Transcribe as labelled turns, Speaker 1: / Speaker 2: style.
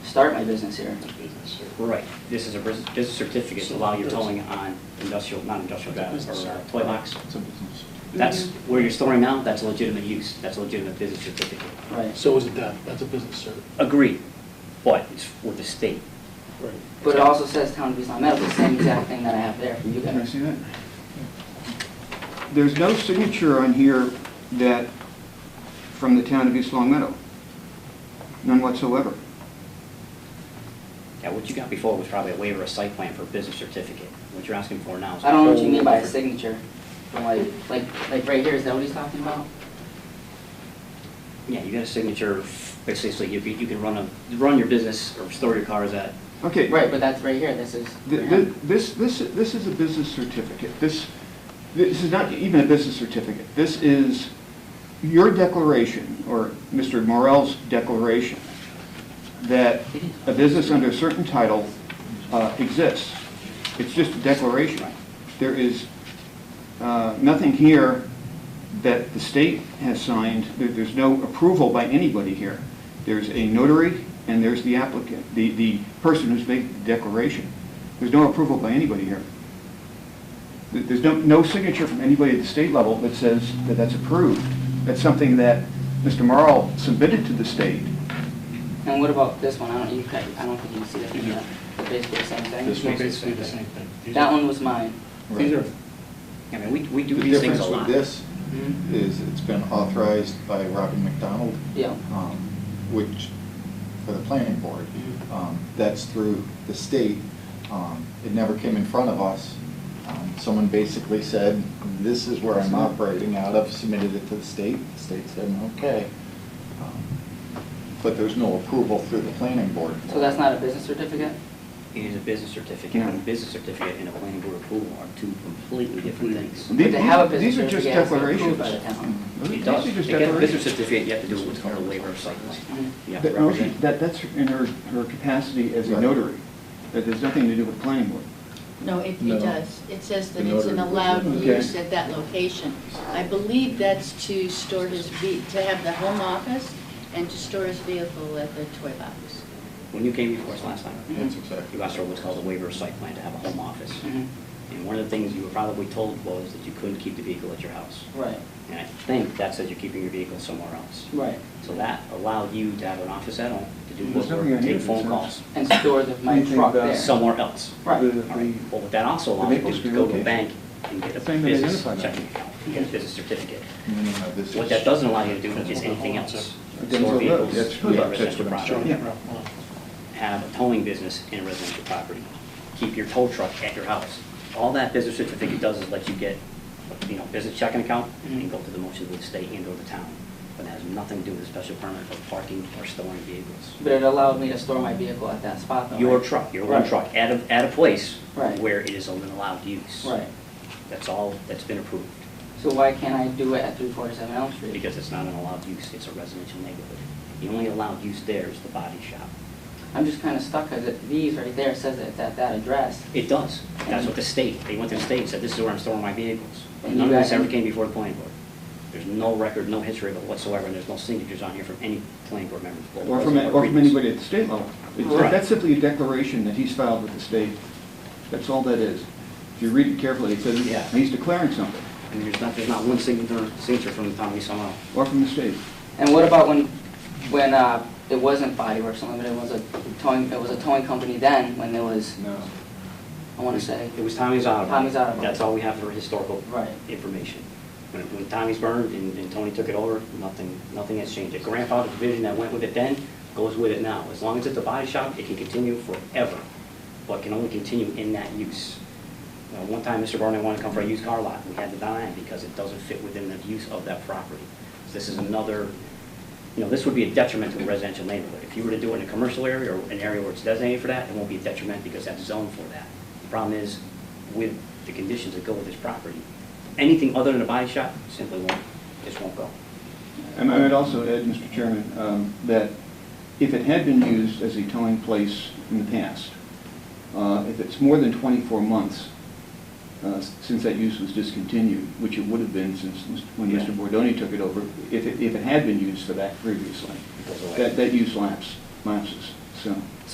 Speaker 1: start my business here.
Speaker 2: Right, this is a bus- business certificate to allow your towing on industrial, not industrial grounds, or uh, toy box.
Speaker 1: Mm-hmm.
Speaker 2: That's where you're storing now, that's a legitimate use, that's a legitimate business certificate.
Speaker 1: Right.
Speaker 3: So is it that, that's a business cert.
Speaker 2: Agreed, but it's with the state.
Speaker 3: Right.
Speaker 1: But it also says Town of East Long Meadow, the same exact thing that I have there for you
Speaker 4: Can I
Speaker 1: guys.
Speaker 4: see that? There's no signature on here that, from the town of East Long Meadow. None whatsoever.
Speaker 2: Yeah, what you got before was probably a waiver of site plan for a business certificate. What you're asking for now is. a
Speaker 1: I don't know what you
Speaker 2: whole
Speaker 1: mean by a
Speaker 2: different-
Speaker 1: signature. From Like, like, like right here, is that what he's talking about?
Speaker 2: Yeah, you got a signature, of- basically, you, you can run a, run your business or store your cars at,
Speaker 4: Okay.
Speaker 1: Right, but that's right here, this is.
Speaker 4: Th- th- This, this, this is a business certificate. This, this is not even a business certificate. This is your declaration, or Mr. Morel's declaration, that a business under a certain title uh, exists. It's just a declaration. There is uh, nothing here that the state has signed. There- There's no approval by anybody here. There's a notary, and there's the applicant, the, the person who's making the declaration. There's no approval by anybody here. There- There's no, no signature from anybody at the state level that says that that's approved. That's something that Mr. Marl submitted to the state.
Speaker 1: And what about this one? I don't, you, can't- I don't think you can see that from here. They're Basically the same thing.
Speaker 3: This one's basically the same thing. These
Speaker 1: That
Speaker 3: are-
Speaker 1: one was mine.
Speaker 3: These are,
Speaker 2: I mean, we, we do
Speaker 5: The
Speaker 2: these things
Speaker 5: difference
Speaker 2: a lot.
Speaker 5: with this
Speaker 4: Mm-hmm.
Speaker 5: is it's been authorized by Robin McDonald,
Speaker 1: Yeah.
Speaker 5: um, which, for the planning board, um, that's through the state. Um, It never came in front of us. Um, Someone basically said, this is where I'm operating out of, submitted it to the state. The state said, okay. Um, But there's no approval through the planning board.
Speaker 1: So that's not a business certificate?
Speaker 2: It is a business certificate,
Speaker 4: Yeah.
Speaker 2: and a business certificate and a planning board approval are two completely different things.
Speaker 1: But to have a business
Speaker 4: These are just
Speaker 1: certificate, it's approved
Speaker 4: declarations.
Speaker 1: by the town.
Speaker 2: It
Speaker 4: These
Speaker 2: does,
Speaker 4: are
Speaker 2: to
Speaker 4: just
Speaker 2: get a business
Speaker 4: declarations.
Speaker 2: certificate, you have to do what's called a waiver of site plan. You have to
Speaker 4: That- no, she-
Speaker 2: represent.
Speaker 4: That, that's in her, her capacity as a
Speaker 5: Right.
Speaker 4: notary. That there's nothing to do with planning board.
Speaker 6: No, it,
Speaker 5: No.
Speaker 6: it does. It says that
Speaker 5: The
Speaker 6: it's an
Speaker 5: notary was
Speaker 6: allowed
Speaker 4: looking.
Speaker 6: use
Speaker 4: Okay.
Speaker 6: at that location. I believe that's to store his, ve- to have the home office and to store his vehicle at the toy box.
Speaker 2: When you came before us last time,
Speaker 5: That's exactly.
Speaker 2: you asked for what's called a waiver of site plan to have a home office.
Speaker 4: Mm-hmm.
Speaker 1: Mhm.
Speaker 2: And one of the things you were probably told was that you couldn't keep the vehicle at your house.
Speaker 1: Right,
Speaker 2: And I think that says you're keeping your vehicle somewhere else.
Speaker 1: right.
Speaker 2: So that allowed you to have an office at home, to do
Speaker 4: There's nothing
Speaker 2: work,
Speaker 4: on here
Speaker 2: take
Speaker 4: that
Speaker 2: phone
Speaker 4: says-
Speaker 2: calls,
Speaker 1: And store the, my
Speaker 4: Anything
Speaker 1: truck
Speaker 4: about
Speaker 1: there.
Speaker 2: somewhere else.
Speaker 1: Right.
Speaker 4: The-
Speaker 2: All right, well, what that also allows
Speaker 4: The
Speaker 2: you to do is
Speaker 4: vacancy
Speaker 2: go to a
Speaker 4: location.
Speaker 2: bank and get a
Speaker 4: Same that they
Speaker 2: business
Speaker 4: identify that.
Speaker 2: checking account, and get a business certificate.
Speaker 5: No, no, no, this
Speaker 2: What
Speaker 5: is-
Speaker 2: that doesn't allow you to do is anything else.
Speaker 4: Denzel
Speaker 2: Store
Speaker 4: Road,
Speaker 2: vehicles,
Speaker 4: that's
Speaker 2: be
Speaker 4: true.
Speaker 2: a residential
Speaker 5: That's what
Speaker 4: I'm
Speaker 2: property,
Speaker 4: showing.
Speaker 2: have a towing business in a residential property, keep your tow truck at your house. All that business certificate does is let you get, you know, business checking account and go to the motions of the state and or the town. But it has nothing to do with a special permit for parking or storing vehicles.
Speaker 1: But it allowed me to store my vehicle at that spot though,
Speaker 2: Your
Speaker 1: right?
Speaker 2: truck, your one
Speaker 1: Right.
Speaker 2: truck, at a, at a place
Speaker 1: Right.
Speaker 2: where it is an allowed use.
Speaker 1: Right.
Speaker 2: That's all that's been approved,
Speaker 1: So why can't I do it at three forty-seven Elm Street?
Speaker 2: because it's not an allowed use, it's a residential neighborhood. The only allowed use there is the body shop.
Speaker 1: I'm just kinda stuck, cause it, these right there says that it's at that address.
Speaker 2: It does. That's what the state, they went to the state and said, this is where I'm storing my vehicles.
Speaker 1: And
Speaker 2: None of
Speaker 1: you
Speaker 2: this
Speaker 1: got-
Speaker 2: ever came before the planning board. There's no record, no history of it whatsoever, and there's no signatures on here from any planning board members.
Speaker 4: Or from, or from anybody at the state level. It's-
Speaker 2: Right.
Speaker 4: That's simply a declaration that he's filed with the state. That's all that is. If you read it carefully, it says
Speaker 2: Yeah.
Speaker 4: he's declaring something,
Speaker 2: And there's not, there's not one signature, signature from the town of East Long Meadow.
Speaker 4: or from the state.
Speaker 1: And what about when, when, uh, it wasn't Body Works Unlimited, it was a towing, it was a towing company then, when there was,
Speaker 5: No.
Speaker 1: I wanna say,
Speaker 2: It was Tommy's Auto.
Speaker 1: Tommy's Auto Body.
Speaker 2: That's all we have for historical
Speaker 1: Right.
Speaker 2: information. When when Tommy's burned and and Tony took it over, nothing, nothing has changed. The grandfather provision that went with it then goes with it now. As long as it's a body shop, it can continue forever, but can only continue in that use. Now, One time, Mr. Barnett wanted to come for a used car lot, we had to deny him because it doesn't fit within the use of that property. So This is another, you know, this would be a detriment to a residential neighborhood. If you were to do it in a commercial area or an area where it's designated for that, it won't be a detriment because that's zoned for that. The problem is with the conditions that go with this property, anything other than a body shop simply won't, just won't go.
Speaker 4: And I would also add, Mr. Chairman, um, that if it had been used as a towing place in the past, uh, if it's more than 24 months uh, s- since that use was discontinued, which it would have been since Mr. when
Speaker 2: Yeah.
Speaker 4: Mr. Bordoni took it over, if it if it had been used for that previously,
Speaker 2: It goes away.
Speaker 4: that that use lapse lapses, so.